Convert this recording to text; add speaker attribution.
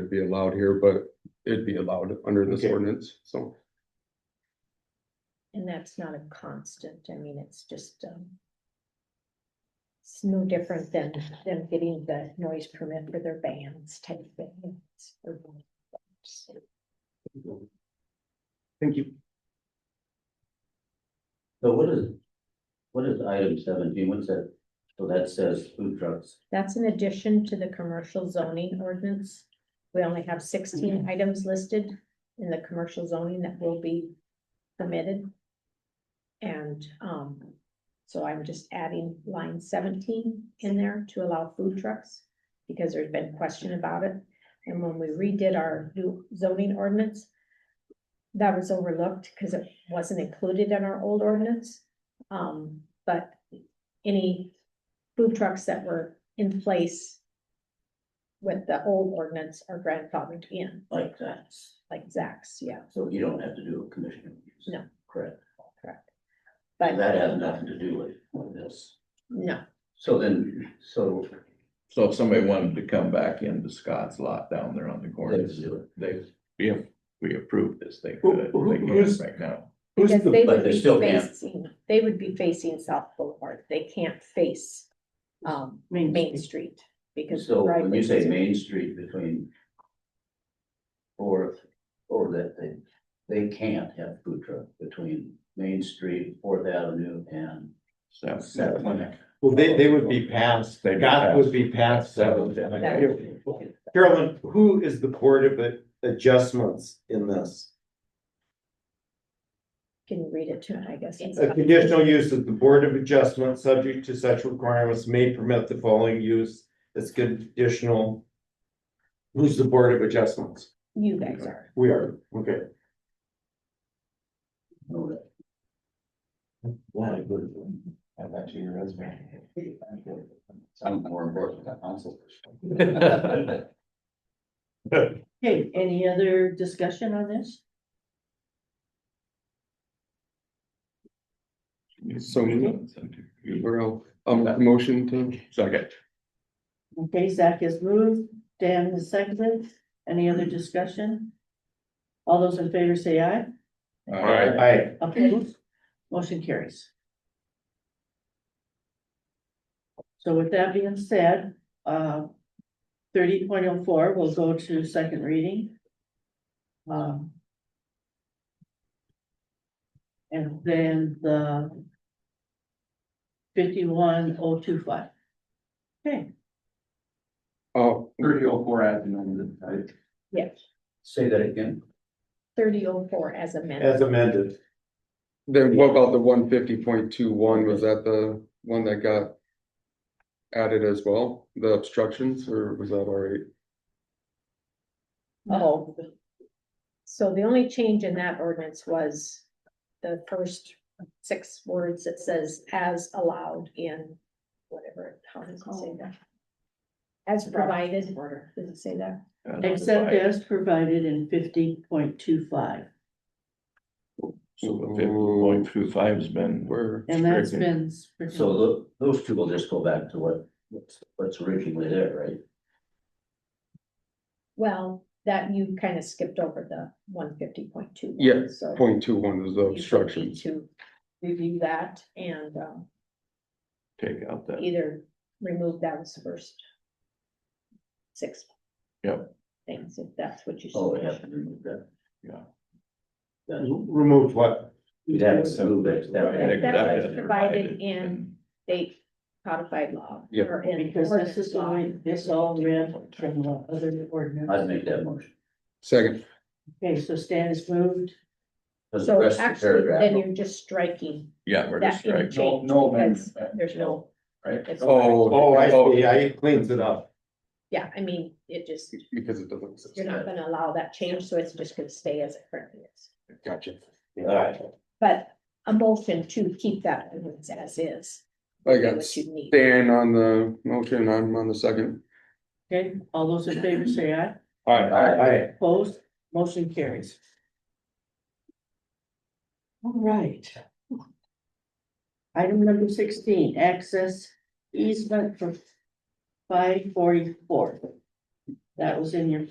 Speaker 1: be allowed here, but it'd be allowed under this
Speaker 2: Okay.
Speaker 1: ordinance, so.
Speaker 3: And that's not a constant, I mean, it's just, um. It's no different than them getting the noise permit for their bands type thing.
Speaker 2: Thank you.
Speaker 4: So what is, what is item seventeen, what's that, so that says food trucks,
Speaker 3: That's in addition to the commercial zoning ordinance. We only have sixteen items listed in the commercial zoning that will be permitted. And, um, so I'm just adding line seventeen in there to allow food trucks, because there's been question about it. And when we redid our new zoning ordinance, that was overlooked because it wasn't included in our old ordinance. Um, but any food trucks that were in place with the old ordinance are grandfathered in,
Speaker 4: like that,
Speaker 3: like Zach's, yeah,
Speaker 4: so you don't have to do a commissioner. use.
Speaker 3: No.
Speaker 4: Correct,
Speaker 3: correct.
Speaker 4: that
Speaker 3: But
Speaker 4: has nothing to do with- with this,
Speaker 3: no,
Speaker 4: so then, so.
Speaker 5: So if somebody wanted to come back into Scott's lot down there on the corner,
Speaker 4: let's do it.
Speaker 5: they, if we approved this, they
Speaker 1: Who-
Speaker 5: could,
Speaker 1: who-
Speaker 5: they can
Speaker 1: who's-
Speaker 5: right now.
Speaker 1: Who's
Speaker 3: because they
Speaker 1: the,
Speaker 4: but
Speaker 3: would
Speaker 4: they
Speaker 3: be
Speaker 4: still can't.
Speaker 3: facing, they would be facing South Boulevard, they can't face um, Main Street because.
Speaker 4: So
Speaker 3: right
Speaker 4: when you
Speaker 3: away-
Speaker 4: say Main Street between Fourth, or that they, they can't have food truck between Main Street, Fourth Avenue and
Speaker 5: So-
Speaker 4: Seventh.
Speaker 2: Well, they, they would be past,
Speaker 5: They'd be
Speaker 2: Scott would
Speaker 5: past.
Speaker 2: be past seventh.
Speaker 3: That would be-
Speaker 2: Carolyn, who is the board of adjustments in this?
Speaker 3: Can read it to, I guess.
Speaker 2: A conditional use of the Board of Adjustment, subject to such requirements, may permit the following use as conditional. Who's the Board of Adjustments?
Speaker 3: You guys are,
Speaker 2: We are, okay.
Speaker 4: No, that-
Speaker 6: Add that to your resume.
Speaker 4: Sounds more important than council.
Speaker 7: Okay, any other discussion on this?
Speaker 1: so, Guerrero, um, motion to
Speaker 5: Second,
Speaker 7: Okay, Zach has moved, Dan has seconded, any other discussion? All those in favor say aye,
Speaker 5: all right,
Speaker 2: I,
Speaker 7: opposed, motion carries. So with that being said, uh, thirty point oh four will go to second reading. Um. And then the fifty-one oh two five. Okay.
Speaker 1: Oh,
Speaker 6: Thirty oh four adds an amendment, right?
Speaker 3: yeah,
Speaker 4: Say that again.
Speaker 3: thirty oh four as amended.
Speaker 2: as amended,
Speaker 1: then what about the one fifty point two one? Was that the one that got added as well, the obstructions, or was that all right?
Speaker 3: Oh. So the only change in that ordinance was the first six words that says as allowed in whatever, how does it say that? As provided, does it say that?
Speaker 5: And
Speaker 7: Except as provided in fifty point two five,
Speaker 5: So the fifty point two five's been.
Speaker 1: Where,
Speaker 7: and that's
Speaker 5: stricken.
Speaker 7: been.
Speaker 4: So uh, tho- those two will just go back to what, what's- what's originally there, right?
Speaker 3: Well, that you kind of skipped over the one fifty point two.
Speaker 1: Yeah,
Speaker 3: so
Speaker 1: point two one was the
Speaker 3: you would
Speaker 1: obstructions.
Speaker 3: need To review that and um,
Speaker 5: Take out that,
Speaker 3: either remove that as first six.
Speaker 5: Yep.
Speaker 3: Things, if that's what you.
Speaker 4: Oh,
Speaker 3: suggest.
Speaker 4: yeah, remove that.
Speaker 5: yeah.
Speaker 2: removed what?
Speaker 4: You'd have to move it. that
Speaker 3: That-
Speaker 4: way.
Speaker 3: that was
Speaker 5: Except as
Speaker 3: provided in- State codified law.
Speaker 1: Yep.
Speaker 3: or in
Speaker 7: Because this
Speaker 3: ordinance
Speaker 7: is
Speaker 3: law.
Speaker 7: all, this all read from the other
Speaker 4: I'd
Speaker 7: ordinance.
Speaker 4: make that motion.
Speaker 1: Second,
Speaker 7: Okay, so Stan is moved,
Speaker 4: 'Cause the
Speaker 3: So
Speaker 4: rest of the
Speaker 3: actually,
Speaker 4: paragraph-
Speaker 3: then you're just striking
Speaker 5: Yeah, we're
Speaker 3: that
Speaker 5: just
Speaker 3: being
Speaker 5: right.
Speaker 3: changed
Speaker 6: no
Speaker 3: because
Speaker 6: amendment.
Speaker 3: there's no.
Speaker 6: Right.
Speaker 3: it's-
Speaker 1: oh.
Speaker 2: Oh, I
Speaker 1: oh,
Speaker 2: see, I cleans it up.
Speaker 3: Yeah, I mean, it just,
Speaker 1: Because it doesn't. exist.
Speaker 3: you're not gonna allow that change, so it's just gonna stay as it currently is.
Speaker 1: Gotcha.
Speaker 4: Alright.
Speaker 3: But a motion to keep that ordinance as is.
Speaker 1: I
Speaker 3: is
Speaker 1: got
Speaker 3: What you need.
Speaker 1: Dan on the motion, I'm on the second.
Speaker 7: okay, all those in favor say aye,
Speaker 1: All
Speaker 4: All right.
Speaker 2: I,
Speaker 7: opposed, motion carries. All right. Item number sixteen, access easement for five forty-four. That was in your